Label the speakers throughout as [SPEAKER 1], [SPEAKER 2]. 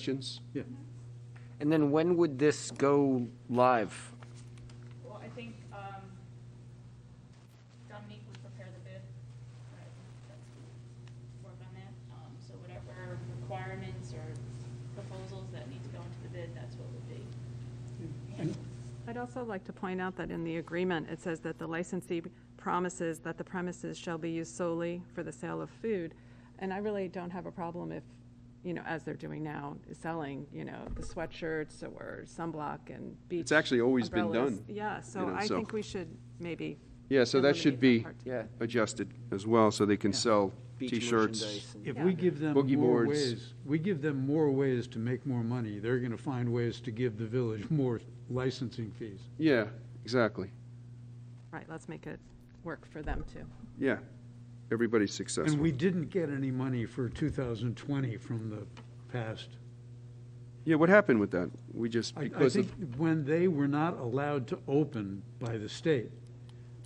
[SPEAKER 1] questions?
[SPEAKER 2] Yeah.
[SPEAKER 3] And then when would this go live?
[SPEAKER 4] Well, I think um, Dominique would prepare the bid. uh, that's- Work on that. Um, So whatever requirements or proposals that need to go into the bid, that's what would be.
[SPEAKER 5] I'd also like to point out that in the agreement, it says that the licensee promises that the premises shall be used solely for the sale of food. And I really don't have a problem if, you know, as they're doing now, selling, you know, the sweatshirts or sunblock and beach.
[SPEAKER 1] It's actually always been
[SPEAKER 5] umbrellas.
[SPEAKER 1] done,
[SPEAKER 5] Yeah, so
[SPEAKER 1] you know,
[SPEAKER 5] I
[SPEAKER 1] so-
[SPEAKER 5] think we should maybe.
[SPEAKER 1] Yeah, so that should
[SPEAKER 5] eliminate
[SPEAKER 1] be
[SPEAKER 5] that part.
[SPEAKER 3] Yeah.
[SPEAKER 1] adjusted as well, so they can
[SPEAKER 2] Yeah.
[SPEAKER 1] sell
[SPEAKER 3] Beach
[SPEAKER 1] T-shirts.
[SPEAKER 3] merchandise and-
[SPEAKER 2] If we
[SPEAKER 5] Yeah.
[SPEAKER 2] give them
[SPEAKER 1] Boogie
[SPEAKER 2] more
[SPEAKER 1] boards.
[SPEAKER 2] ways, we give them more ways to make more money, they're gonna find ways to give the village more licensing fees.
[SPEAKER 1] Yeah, exactly.
[SPEAKER 5] Right, let's make it work for them too.
[SPEAKER 1] Yeah, everybody's
[SPEAKER 2] And
[SPEAKER 1] successful.
[SPEAKER 2] we didn't get any money for 2020 from the past.
[SPEAKER 1] Yeah, what happened with that? We just,
[SPEAKER 2] I, I
[SPEAKER 1] because
[SPEAKER 2] think
[SPEAKER 1] of,
[SPEAKER 2] when they were not allowed to open by the state,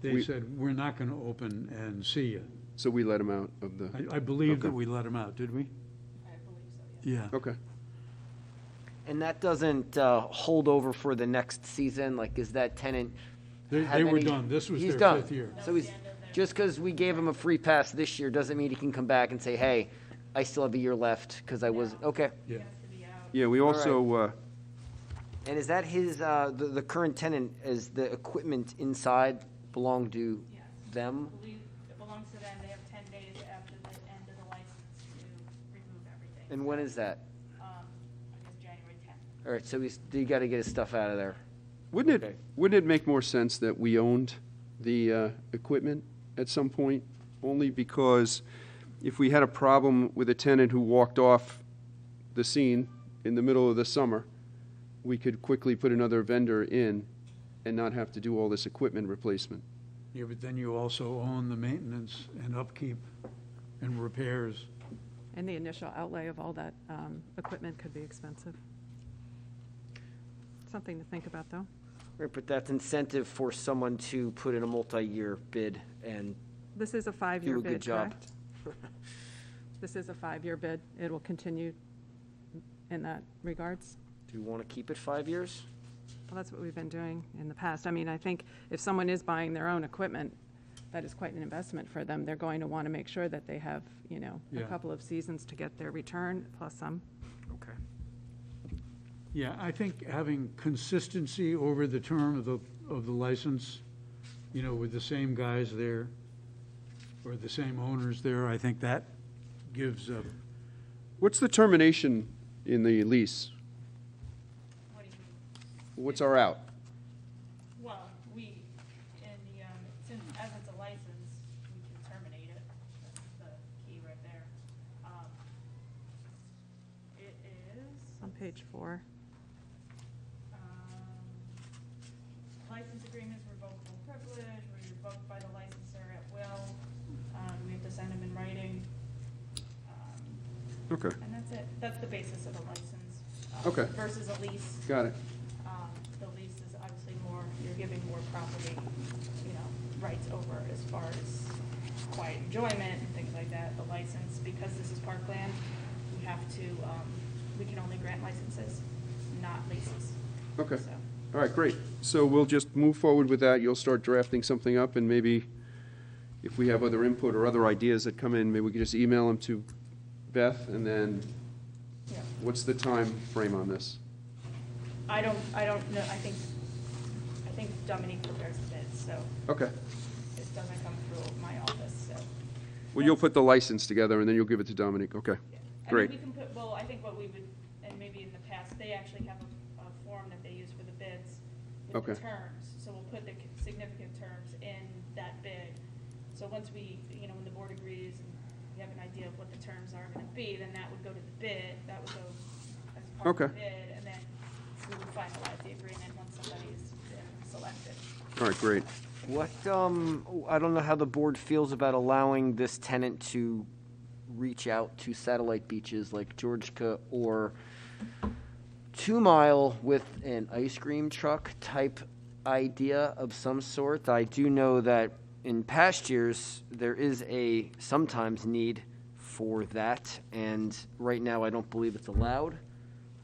[SPEAKER 2] they
[SPEAKER 1] We-
[SPEAKER 2] said, we're not gonna open and see you.
[SPEAKER 1] so we let them out of the,
[SPEAKER 2] I, I believe that
[SPEAKER 1] Okay.
[SPEAKER 2] we let them out, did we?
[SPEAKER 4] I believe so, yes.
[SPEAKER 2] Yeah.
[SPEAKER 1] okay.
[SPEAKER 3] And that doesn't uh, hold over for the next season? Like, is that tenant?
[SPEAKER 2] They-
[SPEAKER 3] have
[SPEAKER 2] they were
[SPEAKER 3] any-
[SPEAKER 2] done. This was
[SPEAKER 3] He's
[SPEAKER 2] their
[SPEAKER 3] done.
[SPEAKER 2] fifth year.
[SPEAKER 3] So he's, just because we gave him a free pass this year doesn't mean he can come back and say, hey, I still have a year left because I was, okay.
[SPEAKER 2] Yeah.
[SPEAKER 4] It has to be out.
[SPEAKER 1] Yeah, we
[SPEAKER 3] All right.
[SPEAKER 1] also, uh,
[SPEAKER 3] And is that his, uh, the, the current tenant, is the equipment inside belong to
[SPEAKER 4] Yes. I
[SPEAKER 3] them?
[SPEAKER 4] believe it belongs to them. They have 10 days after the end of the license to remove everything.
[SPEAKER 3] And when is that?
[SPEAKER 4] Um, I guess January 10th.
[SPEAKER 3] All right, so he's, you got to get his stuff out of there.
[SPEAKER 1] wouldn't it,
[SPEAKER 3] Okay.
[SPEAKER 1] wouldn't it make more sense that we owned the uh, equipment at some point? Only because if we had a problem with a tenant who walked off the scene in the middle of the summer, we could quickly put another vendor in and not have to do all this equipment replacement.
[SPEAKER 2] Yeah, but then you also own the maintenance and upkeep and repairs.
[SPEAKER 5] And the initial outlay of all that um, equipment could be expensive. Something to think about, though.
[SPEAKER 3] Right, but that's incentive for someone to put in a multi-year bid and
[SPEAKER 5] This is a
[SPEAKER 3] do
[SPEAKER 5] five-year
[SPEAKER 3] a good
[SPEAKER 5] bid,
[SPEAKER 3] job.
[SPEAKER 5] correct? This is a five-year bid. It will continue in that regards.
[SPEAKER 3] Do you want to keep it five years?
[SPEAKER 5] Well, that's what we've been doing in the past. I mean, I think if someone is buying their own equipment, that is quite an investment for them. They're going to want to make sure that they have, you know, a
[SPEAKER 2] Yeah.
[SPEAKER 5] couple of seasons to get their return plus some.
[SPEAKER 3] Okay.
[SPEAKER 2] Yeah, I think having consistency over the term of the, of the license, you know, with the same guys there, or the same owners there, I think that gives a,
[SPEAKER 1] What's the termination in the lease?
[SPEAKER 4] What do you mean?
[SPEAKER 1] What's our out?
[SPEAKER 4] Well, we, in the, um, since, as it's a license, we can terminate it, that's the key right there. Um, It is,
[SPEAKER 5] On page four,
[SPEAKER 4] um, license agreements revocable privilege, were revoked by the licensor at will, um, we have to send them in writing. Um,
[SPEAKER 1] Okay,
[SPEAKER 4] And that's it, that's the basis of a license. um,
[SPEAKER 1] Okay.
[SPEAKER 4] Versus a lease.
[SPEAKER 1] got it.
[SPEAKER 4] Um, The lease is obviously more, you're giving more property, you know, rights over as far as quiet enjoyment and things like that. The license, because this is parkland, we have to, um, we can only grant licenses, not leases.
[SPEAKER 1] Okay.
[SPEAKER 4] So,
[SPEAKER 1] All right, great. So we'll just move forward with that. You'll start drafting something up, and maybe if we have other input or other ideas that come in, maybe we can just email them to Beth, and then
[SPEAKER 4] yeah.
[SPEAKER 1] what's the time frame on this?
[SPEAKER 4] I don't, I don't know, I think, I think Dominique prepares the bids, so
[SPEAKER 1] Okay.
[SPEAKER 4] this doesn't come through my office, so.
[SPEAKER 1] Well, you'll put the license together, and then you'll give it to Dominic. Okay,
[SPEAKER 4] Yeah.
[SPEAKER 1] great.
[SPEAKER 4] I mean, we can put, well, I think what we would, and maybe in the past, they actually have a, a form that they use for the bids with the
[SPEAKER 1] Okay.
[SPEAKER 4] terms, so we'll put the significant terms in that bid. So once we, you know, when the board agrees and we have an idea of what the terms are gonna be, then that would go to the bid, that would go as part of
[SPEAKER 1] Okay.
[SPEAKER 4] the bid, and then we would finalize the agreement once somebody's been selected.
[SPEAKER 1] All right, great.
[SPEAKER 3] What, um, I don't know how the board feels about allowing this tenant to reach out to satellite beaches like Georgica or Two Mile with an ice cream truck type idea of some sort. I do know that in past years, there is a sometimes need for that, and right now I don't believe it's allowed.